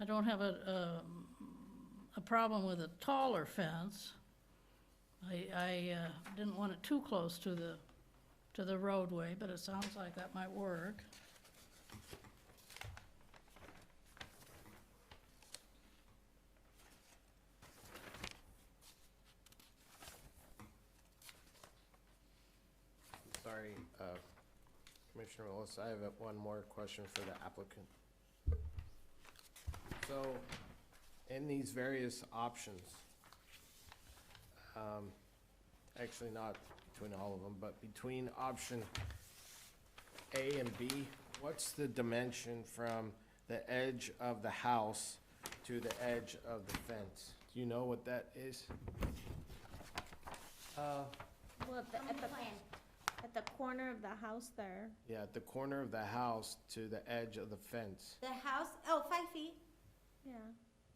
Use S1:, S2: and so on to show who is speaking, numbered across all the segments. S1: I don't have a, um, a problem with a taller fence. I, I uh, didn't want it too close to the, to the roadway, but it sounds like that might work.
S2: Sorry, uh, Commissioner Willis, I have uh, one more question for the applicant. So, in these various options, um, actually not between all of them, but between option A and B, what's the dimension from the edge of the house to the edge of the fence? Do you know what that is? Uh,
S3: Well, at the, at the, at the corner of the house there.
S2: Yeah, at the corner of the house to the edge of the fence.
S4: The house, oh, five feet,
S3: Yeah.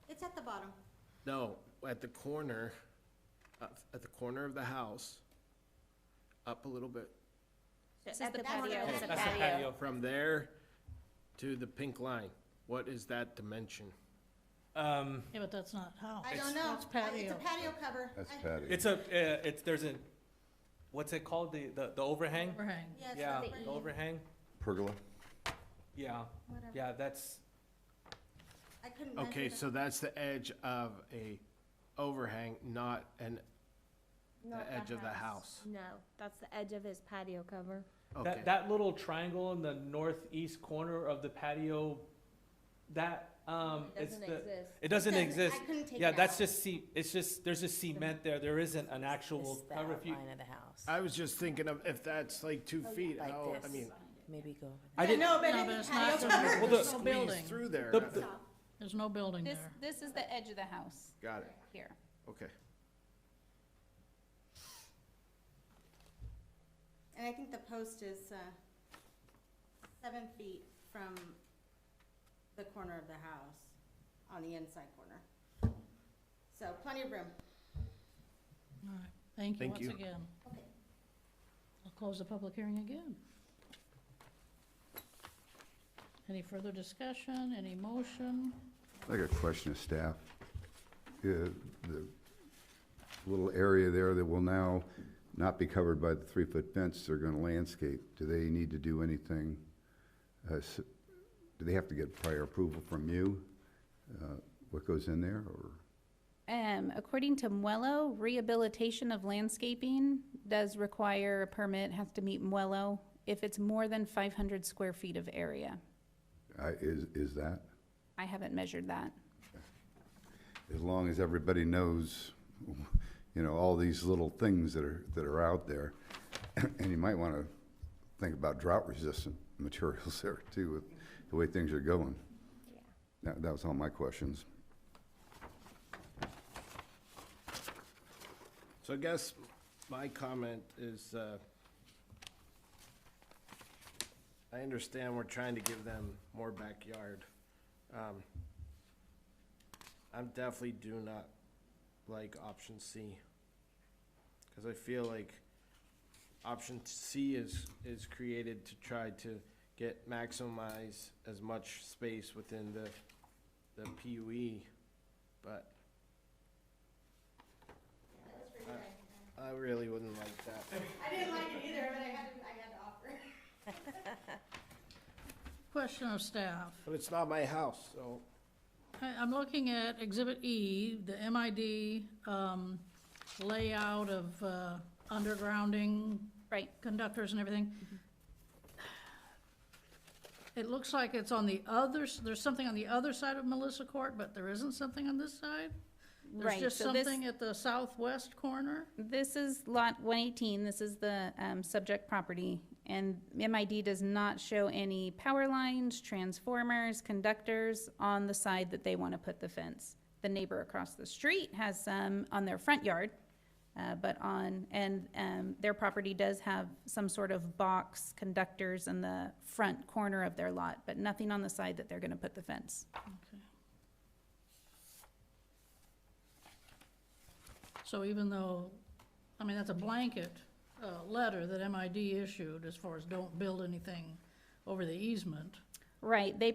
S4: it's at the bottom.
S2: No, at the corner, up- at the corner of the house, up a little bit.
S3: This
S4: at
S3: is the
S4: the corner.
S3: patio.
S4: That's
S5: That's the patio.
S2: From there to the pink line, what is that dimension?
S5: Um,
S1: Yeah, but that's not how.
S4: I
S5: It's-
S4: don't know,
S1: That's
S4: I- it's
S1: patio.
S4: a patio cover.
S6: That's
S4: I-
S6: patio.
S5: it's a, uh, it's, there's a, what's it called, the, the, the overhang?
S1: Overhang.
S4: Yeah, it's
S5: Yeah,
S4: not
S5: the
S4: pretty.
S5: overhang,
S6: Pergola?
S5: yeah,
S3: Whatever.
S5: yeah, that's,
S4: I couldn't measure
S2: Okay,
S4: that.
S2: so that's the edge of a overhang, not an,
S3: Not
S2: edge of the house.
S3: No, that's the edge of his patio cover.
S2: okay.
S5: that, that little triangle in the northeast corner of, the patio, that, um, it's
S3: Doesn't
S5: the,
S3: exist.
S5: it doesn't
S4: I
S5: exist.
S4: couldn't take it
S5: Yeah, that's
S4: out.
S5: just ce, it's just, there's just cement there, there isn't an
S7: This
S5: actual
S7: is the
S5: cover. If you-
S7: outline of the house,
S2: I was just thinking of if that's like two feet,
S7: like
S2: how, I
S7: this.
S2: mean,
S7: maybe go.
S5: I didn't,
S4: No, but
S1: No, but it's
S4: it's a patio
S1: not,
S4: cover.
S1: there's
S5: Well,
S1: there's
S5: the-
S1: no
S2: squeeze
S1: building.
S2: through there.
S5: The-
S2: that's-
S5: the-
S1: There's no building
S8: This,
S1: there.
S8: this is the edge of the house
S2: Got it,
S8: here.
S2: okay.
S4: And I think the post is, uh, seven feet from the corner of the house, on the inside corner. So plenty of room.
S1: All right. Thank you
S2: Thank
S1: once
S2: you.
S1: again.
S4: Okay.
S1: I'll close the public hearing again. Any further discussion, any motion?
S6: I got a question of staff. Uh, The little area there that will now not be covered by the three-foot fence, they're going to landscape. Do they need to do anything? uh, s- Do they have to get prior approval from you, uh, what goes in there, or?
S8: Um, according to Muello, rehabilitation of landscaping does require a permit, has to meet Muello if it's more than five hundred square feet of area.
S6: I- Is, is that?
S8: I haven't measured that.
S6: as long as everybody knows, you know, all these little things that are, that are out there. And you might want to think about drought resistant materials there too, with the way things are going. That, that was all my questions.
S2: So I guess my comment is, uh, I understand we're trying to give them more backyard. Um, I'm definitely do not like option C. Cause I feel like option C is, is created to try to get maximize as much space within the, the PUE, but I really wouldn't like that.
S4: I didn't like it either, but I had to, I had to offer.
S1: Question of staff.
S2: But it's not my house, so.
S1: I- I'm looking at Exhibit E, the MID um, layout of uh, undergrounding
S8: Right.
S1: conductors and everything. It looks like it's on the other, s- there's something on the other side of Melissa Court, but there isn't something on this side?
S8: Right,
S1: There's just
S8: so this-
S1: something at the southwest corner?
S8: This is lot one eighteen, this is the, um, subject property, and MID does not show any power lines, transformers, conductors on the side that they wanna put the fence. The neighbor across the street has some on their front yard, uh, but on, and, um, their property does have some sort of box conductors in the front corner of their lot, but nothing on the side that they're gonna put the fence.
S1: Okay. So even though, I mean, that's a blanket, uh, letter that MID issued as far as don't build anything over the easement.
S8: Right, they